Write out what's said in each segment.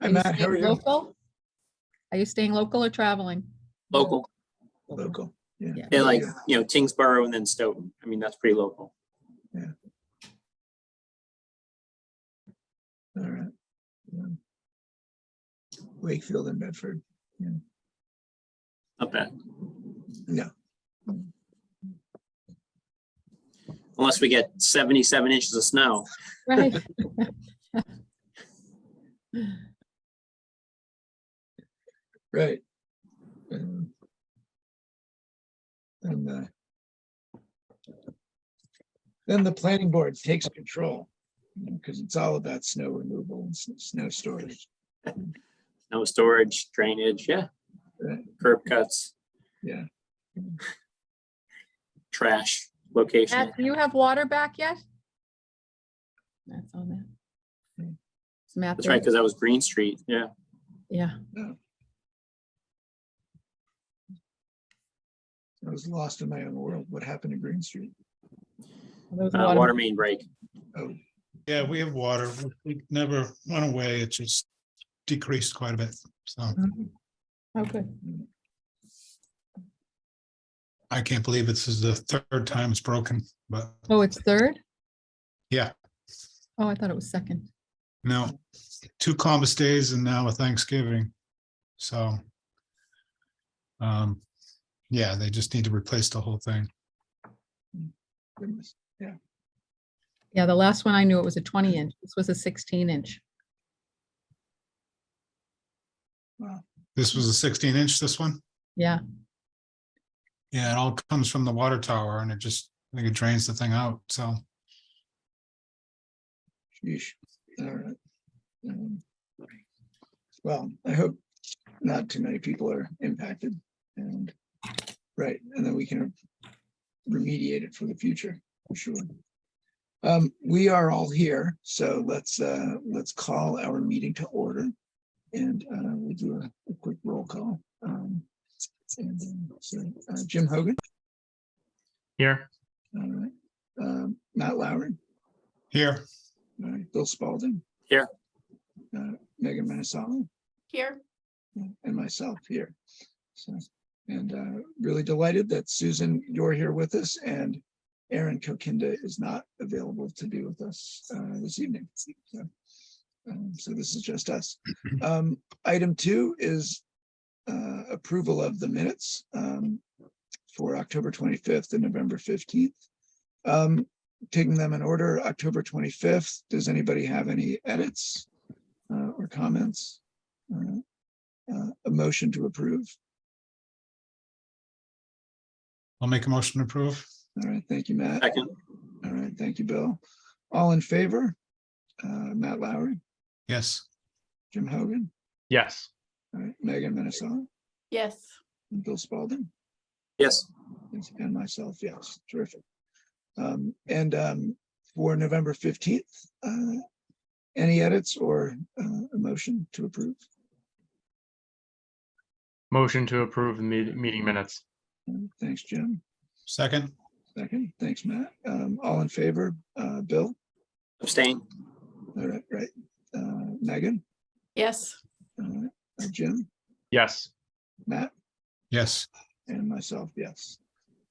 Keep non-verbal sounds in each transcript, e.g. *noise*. Hi, Are you Matt, how are staying you? local? Are you staying local or traveling? local, Local, Yeah. yeah. yeah, like, you know, Tingsboro and then Stoughton. I mean, that's pretty local. All right. Yeah. Wakefield and Bedford, Not bad. No. Unless we get seventy-seven inches of snow. Right. *laughs* right. Um, And uh, then the planning board takes control, because it's all about snow removal and s- snow storage. No storage, drainage, yeah. Right. Curb cuts, Yeah, trash, location. Matt, do you have water back yet? That's on that. It's Matt That's right, there. because that was Green Street, yeah. Yeah, I was lost in my own world. What happened to Green Street? those Uh, Water water, main break. Oh, Yeah, we have water. It never went away. It just decreased quite a bit. So Mm-hmm. okay. I can't believe this is the third time it's broken, but Oh, it's third? Yeah. Oh, I thought it was second. no, two Columbus days and now a Thanksgiving. So um, yeah, they just need to replace the whole thing. goodness. Yeah, the last one I knew it was a twenty inch. This was a sixteen inch. This was a sixteen inch, this one? Yeah, Yeah, it all comes from the water tower and it just, I think it drains the thing out. So Sheesh, all right. Um, Well, I hope not too many people are impacted and, right, and then we can remediate it for the future, for sure. Um, we are all here, so let's, uh, let's call our meeting to order. And, uh, we'll do a, a quick roll call. Um, and, um, so, uh, Jim Hogan, Here, all right, um, Matt Lowry. here, All right, Bill Spalding. Here. Uh, Megan Minnisally Here, and myself here. So, and uh, really delighted that Susan, you're here with us and Aaron Kokinda is not available to be with us uh, this evening. So, um, So this is just us. Um, Item two is uh, approval of the minutes um, for October 25th and November 15th. Um, Taking them in order, October 25th, does anybody have any edits uh, or comments? Uh, uh, a motion to approve. I'll make a motion to approve. All right, thank you, Matt. Second, All right, thank you, Bill. All in favor? Uh, Matt Lowry, Yes. Jim Hogan, yes. all right, Megan Minnisally, yes. and Bill Spalding, yes, and myself, yes, terrific. Um, and, um, for November fifteenth, uh, any edits or, uh, a motion to approve? Motion to approve the meet- meeting minutes. Uh, Thanks, Jim. Second, Second, thanks, Matt. Um, all in favor? Uh, Bill? abstain, All right, right. Uh, Megan? Yes, All right, uh, Jim? Yes, Matt? yes. And myself, yes.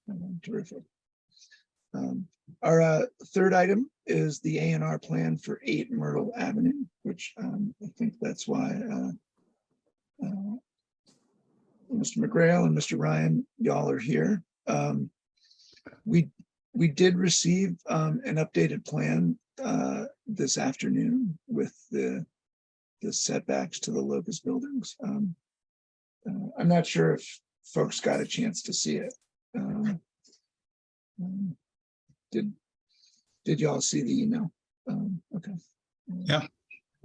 Um, Terrific. Um, Our uh, third item is the A and R plan for eight Myrtle Avenue, which um, I think that's why uh, uh, Mr. McGrail and Mr. Ryan, y'all are here. Um, We, we did receive um, an updated plan uh, this afternoon with the the setbacks to the locust buildings. Um, uh, I'm not sure if folks got a chance to see it. Um, um, Did, did y'all see the email? Um, Okay. Yeah.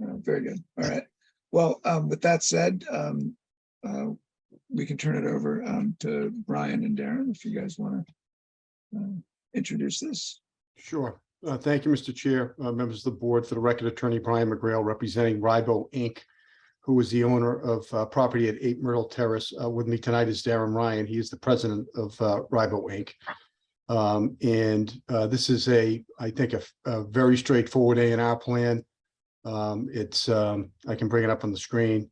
Uh, Very good. All right. Well, um, with that said, um, uh, we can turn it over um, to Brian and Darren if you guys want to introduce this. Sure. Uh, Thank you, Mr. Chair, uh, members of the board, for the record attorney Brian McGrail representing Ribo Inc., who is the owner of uh, property at 8 Myrtle Terrace. Uh, With me tonight is Darren Ryan. He is the president of uh, Ribo Inc. Um, And uh, this is a, I think, a a very straightforward A and R plan Um, It's, um, I can bring it up on the screen.